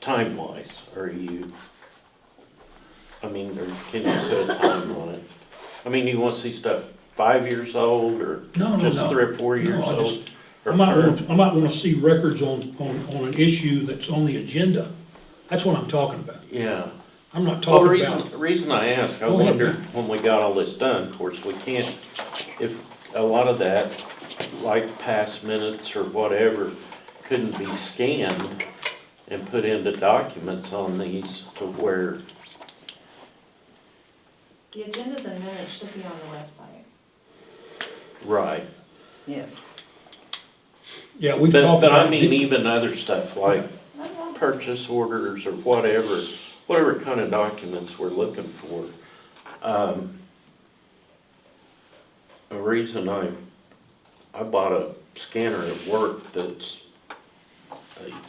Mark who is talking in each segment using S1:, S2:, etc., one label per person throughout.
S1: time wise, are you, I mean, or can you put a time on it? I mean, you wanna see stuff five years old or
S2: No, no,
S1: just
S2: no.
S1: three or four years
S2: No, I just-
S1: old?
S2: I
S1: Or
S2: might
S1: or-
S2: want, I might want to see records on, on, on an issue that's on the agenda. That's what I'm talking about.
S1: Yeah.
S2: I'm not
S1: Well, the
S2: talking about,
S1: reason, the reason I ask, I
S2: Go ahead,
S1: wondered
S2: man.
S1: when we got all this done, of course, we can't, if a lot of that, like past minutes or whatever, couldn't be scanned and put into documents on these to where,
S3: The agendas and minutes should be on the website.
S1: right.
S4: Yes.
S2: yeah, we've
S1: But,
S2: talked
S1: but I
S2: about,
S1: mean
S2: di-
S1: even other stuff like purchase orders or whatever, whatever kind of documents we're looking for. Um, A reason I, I bought a scanner at work that's, uh,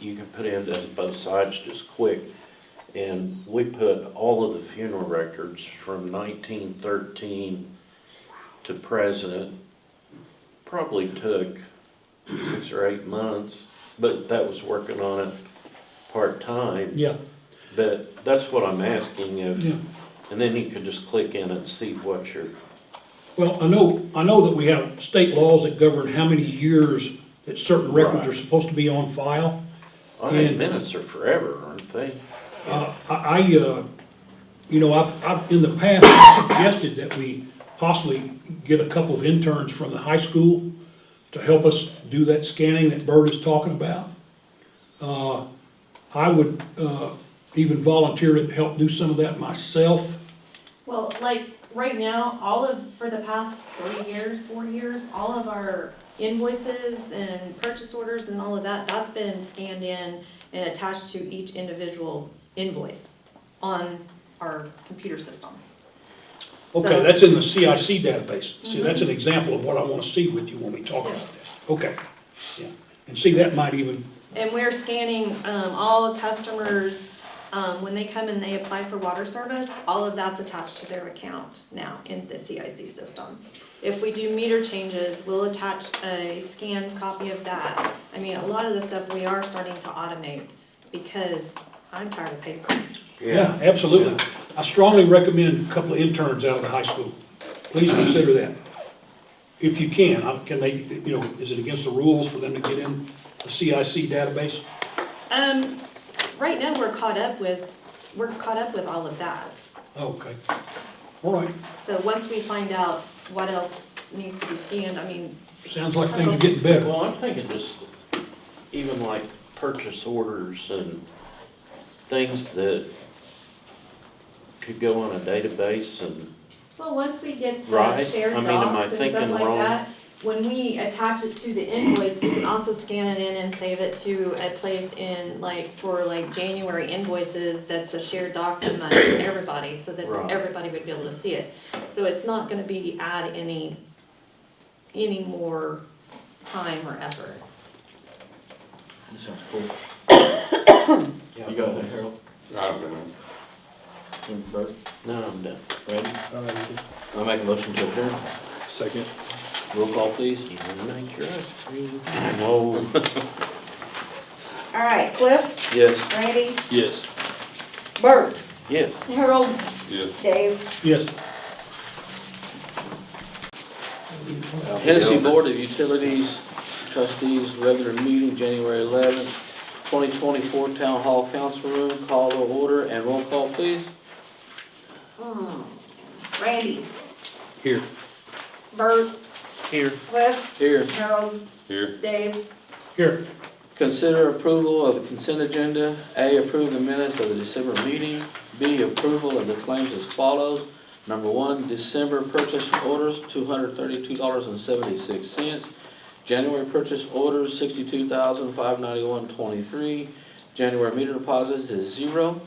S1: you can put in to both sides just quick. And we put all of the funeral records from nineteen thirteen to present. Probably took six or eight months, but that was working on it part-time.
S2: yeah,
S1: But that's what I'm asking if,
S2: yeah.
S1: and then you could just click in and see what your,
S2: Well, I know, I know that we have state laws that govern how many years that certain records
S1: Right.
S2: are supposed to be on file.
S1: I think
S2: And-
S1: minutes are forever, aren't they?
S2: Uh, I, I, uh, you know, I've, I've, in the past, I've suggested that we possibly get a couple of interns from the high school to help us do that scanning that Bert is talking about. Uh, I would, uh, even volunteer to help do some of that myself.
S3: Well, like, right now, all of, for the past three years, four years, all of our invoices and purchase orders and all of that, that's been scanned in and attached to each individual invoice on our computer system.
S2: Okay,
S3: So-
S2: that's in the CIC database. See, that's an example of what I wanna see with you when we talk about
S3: Yes.
S2: this. Okay, yeah. And see, that might even,
S3: And we're scanning um, all customers, um, when they come and they apply for water service, all of that's attached to their account now in the CIC system. If we do meter changes, we'll attach a scanned copy of that. I mean, a lot of the stuff we are starting to automate because I'm tired of paper.
S2: yeah, absolutely. I strongly recommend a couple of interns out of the high school. Please consider that. If you can, I- can they, you know, is it against the rules for them to get in the CIC database?
S3: Um, right now, we're caught up with, we're caught up with all of that.
S2: Okay, all right.
S3: So once we find out what else needs to be scanned, I mean,
S2: Sounds like things are getting better.
S1: Well, I'm thinking just even like purchase orders and things that could go on a database and,
S3: Well, once we get the
S1: Right. I
S3: shared
S1: mean, am I
S3: docs and stuff
S1: thinking
S3: like
S1: wrong?
S3: that, when we attach it to the invoice, we can also scan it in and save it to a place in like, for like January invoices, that's a shared doc amongst everybody, so that
S1: Right.
S3: everybody would be able to see it. So it's not gonna be add any, any more time or effort.
S5: That sounds cool. You
S1: yeah,
S5: got that, Harold?
S6: I don't know.
S5: And Bert?
S1: no, I'm done.
S5: Randy? I'll make a motion to adjourn.
S6: Second.
S5: Roll call, please.
S1: You didn't make your ice cream. Whoa.
S4: All right, Cliff,
S5: Yes.
S4: Randy,
S6: Yes.
S4: Bert,
S1: Yes.
S4: Harold,
S6: Yes.
S4: Dave.
S2: Yes.
S5: Hennessy Board of Utilities Trustees, regular meeting, January eleventh, twenty twenty-four, Town Hall Council Room, call to order and roll call, please.
S4: Randy,
S5: Here.
S4: Bert,
S1: Here.
S4: Cliff,
S5: Here.
S4: Harold,
S6: Here.
S4: Dave.
S2: Here,
S5: Consider approval of the consent agenda. A, approve the minutes of the December meeting. B, approval of the claims as follows. Number one, December purchase orders, two hundred thirty-two dollars and seventy-six cents. January purchase orders, sixty-two thousand, five ninety-one, twenty-three. January meter deposits is zero.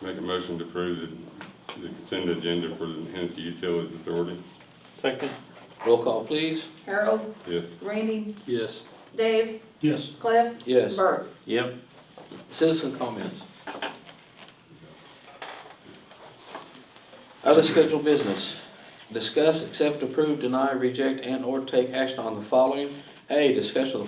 S6: Make a motion to approve the, the consent agenda for the Hennessy Utilities Authority.
S1: Second.
S5: Roll call, please.
S4: Harold,
S6: Yes.
S4: Randy,
S5: Yes.
S4: Dave,
S2: yes.
S4: Cliff,
S5: Yes.
S4: Bert.
S1: Yep.
S5: Citizen comments. Other scheduled business. Discuss, accept, approve, deny, reject, and/or take action on the following. A, discussion of the